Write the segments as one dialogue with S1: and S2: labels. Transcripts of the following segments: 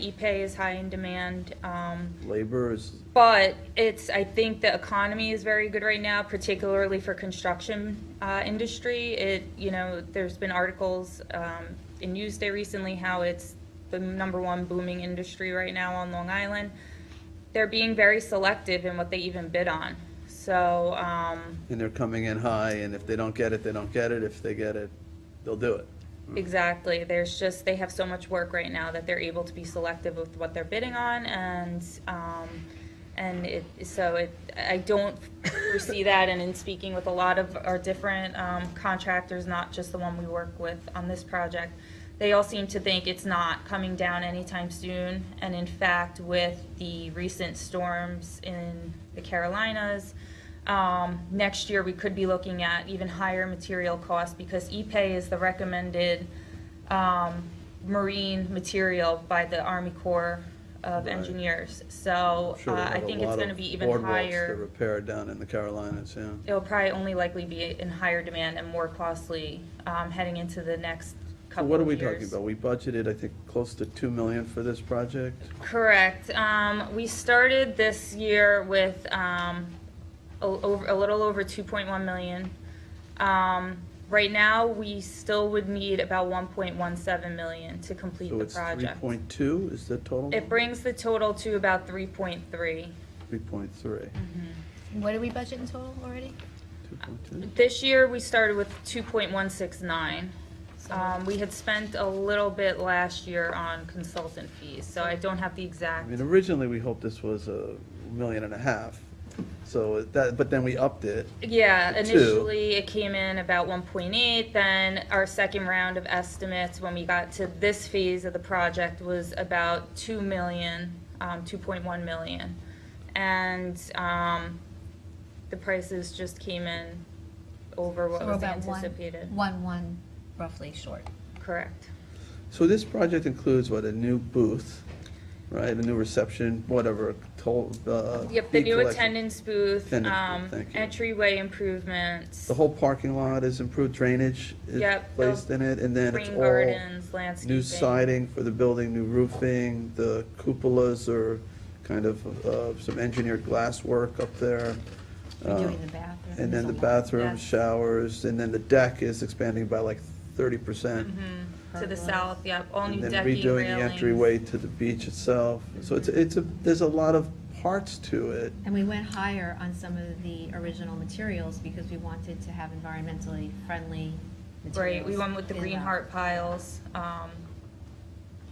S1: E-pay E is high in demand, um,
S2: Labor is,
S1: but it's, I think the economy is very good right now, particularly for construction, uh, industry. It, you know, there's been articles, um, in Newsday recently how it's the number one booming industry right now on Long Island. They're being very selective in what they even bid on, so, um,
S2: and they're coming in high, and if they don't get it, they don't get it. If they get it, they'll do it.
S1: Exactly. There's just, they have so much work right now that they're able to be selective with what they're bidding on and, um, and it, so it, I don't foresee that and in speaking with a lot of our different, um, contractors, not just the one we work with on this project, they all seem to think it's not coming down anytime soon. And in fact, with the recent storms in the Carolinas, um, next year, we could be looking at even higher material costs because E-Pay is the recommended um, marine material by the Army Corps of
S2: Right.
S1: Engineers. So
S2: I'm
S1: uh,
S2: sure they
S1: I
S2: have a
S1: think it's
S2: lot
S1: going to
S2: of
S1: be even
S2: Boardwalks to
S1: higher.
S2: repair down in the Carolinas, yeah.
S1: It'll probably only likely be in higher demand and more costly um, heading into the next
S2: So
S1: couple
S2: what are
S1: of
S2: we
S1: years.
S2: talking about? We budgeted, I think, close to two million for this project?
S1: Correct. Um, we started this year with, um, a, over, a little over two point one million. Um, right now, we still would need about one point one seven million to complete
S2: So
S1: the
S2: it's three
S1: project.
S2: point two is the total?
S1: It brings the total to about three point three.
S2: Three point three.
S1: Mm-hmm.
S3: What did we budget in total already?
S2: Two point two.
S1: This year, we started with two point one six nine. Um, we had spent a little bit last year on consultant fees, so I don't have the
S2: I
S1: exact.
S2: mean, originally, we hoped this was a million and a half, so that, but then we upped it.
S1: Yeah,
S2: Two.
S1: initially it came in about one point eight, then our second round of estimates, when we got to this phase of the project, was about two million, um, two point one million. And, um, the prices just came in over what
S3: So we're
S1: was
S3: about one-
S1: anticipated.
S3: One, one roughly short.
S1: Correct.
S2: So this project includes what, a new booth, right, a new reception, whatever, toll, uh.
S1: Yep, the
S2: fee
S1: new
S2: collection.
S1: attendance booth,
S2: Attendance booth,
S1: um,
S2: thank you.
S1: entryway improvements,
S2: The whole parking lot is improved drainage is
S1: Yep, the
S2: placed in it, and then it's
S1: green
S2: all
S1: gardens, landscaping.
S2: new siding for the building, new roofing, the cupolas are kind of, uh, some engineered glass work up there.
S4: Oh.
S2: uh,
S3: Doing the bathroom.
S2: And then the
S1: Yeah.
S2: bathroom, showers, and then the deck is expanding by like thirty percent.
S1: Mm-hmm. To the south, yep, all new
S2: And then
S1: decking,
S2: redoing the
S1: railings.
S2: entryway to the beach itself. So it's, it's, a there's a lot of parts to it.
S3: And we went higher on some of the original materials because we wanted to have environmentally friendly materials.
S1: Right, we went with the
S3: in
S1: green heart piles, um,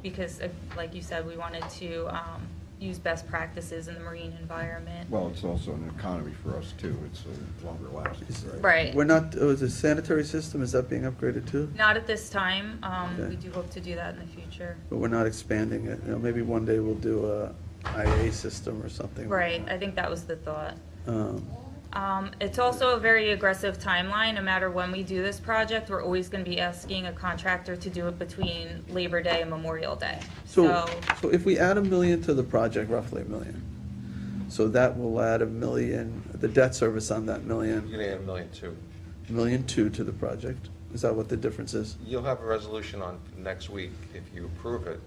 S1: because, uh, like you said, we wanted to, um, use best practices in the marine environment.
S5: Well, it's also an economy for us too, it's uh, longer lasting, right?
S1: Right,
S2: We're not, oh, the sanitary system, is that being upgraded too?
S1: not at this time, um,
S2: Okay.
S1: we do hope to do that in the future.
S2: But we're not expanding it. You know, maybe one day we'll do a IA system or something.
S1: Right, I think that was the thought.
S2: Um,
S1: Um, it's also a very aggressive timeline, no matter when we do this project, we're always gonna be asking a contractor to do it between Labor Day and Memorial Day,
S2: So, so if we add a million to the project, roughly a million, so that will add a million, the debt service on that
S4: You're
S2: million,
S4: gonna add a million too.
S2: million two to the project. Is that what the difference is?
S4: You'll have a resolution on next week, if you approve it,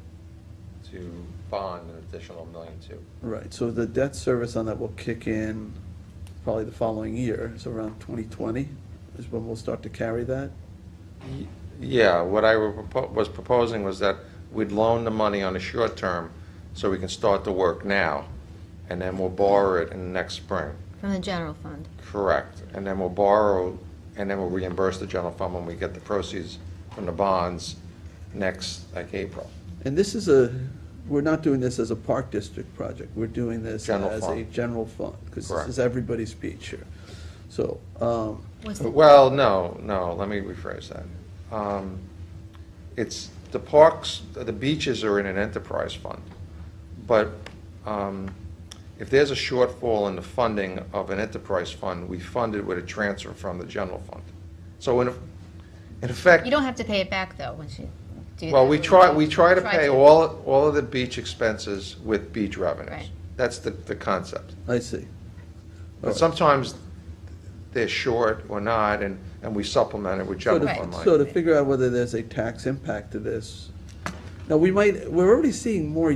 S4: to bond an additional million two.
S2: Right, so the debt service on that will kick in probably the following year, so around 2020 is when we'll start to carry that.
S4: Yeah, what I were propo- was proposing was that we'd loan the money on a short term, so we can start the work now, and then we'll borrow it in next spring.
S3: From the general fund.
S4: Correct. And then we'll borrow, and then we'll reimburse the general fund when we get the proceeds from the bonds next, like April.
S2: And this is a, we're not doing this as a park district project, we're doing this
S4: General
S2: as a
S4: fund.
S2: general fund, because this
S4: Correct.
S2: is everybody's beach here. So, um,
S3: Was
S4: Well, no, no, let me rephrase that. Um, It's, the parks, the beaches are in an enterprise fund, but um, if there's a shortfall in the funding of an enterprise fund, we fund it with a transfer from the general fund. So in, in effect.
S3: You don't have to pay it back though, once you do that.
S4: Well, we try, we try to
S3: Try
S4: pay all, all of the beach expenses with beach revenues.
S3: Right.
S4: That's the, the concept.
S2: I see.
S4: But sometimes they're short or not, and, and we supplement it with
S2: So
S4: general fund
S2: to,
S4: money.
S2: so to figure out whether there's a tax impact to this, now, we might, we're already seeing more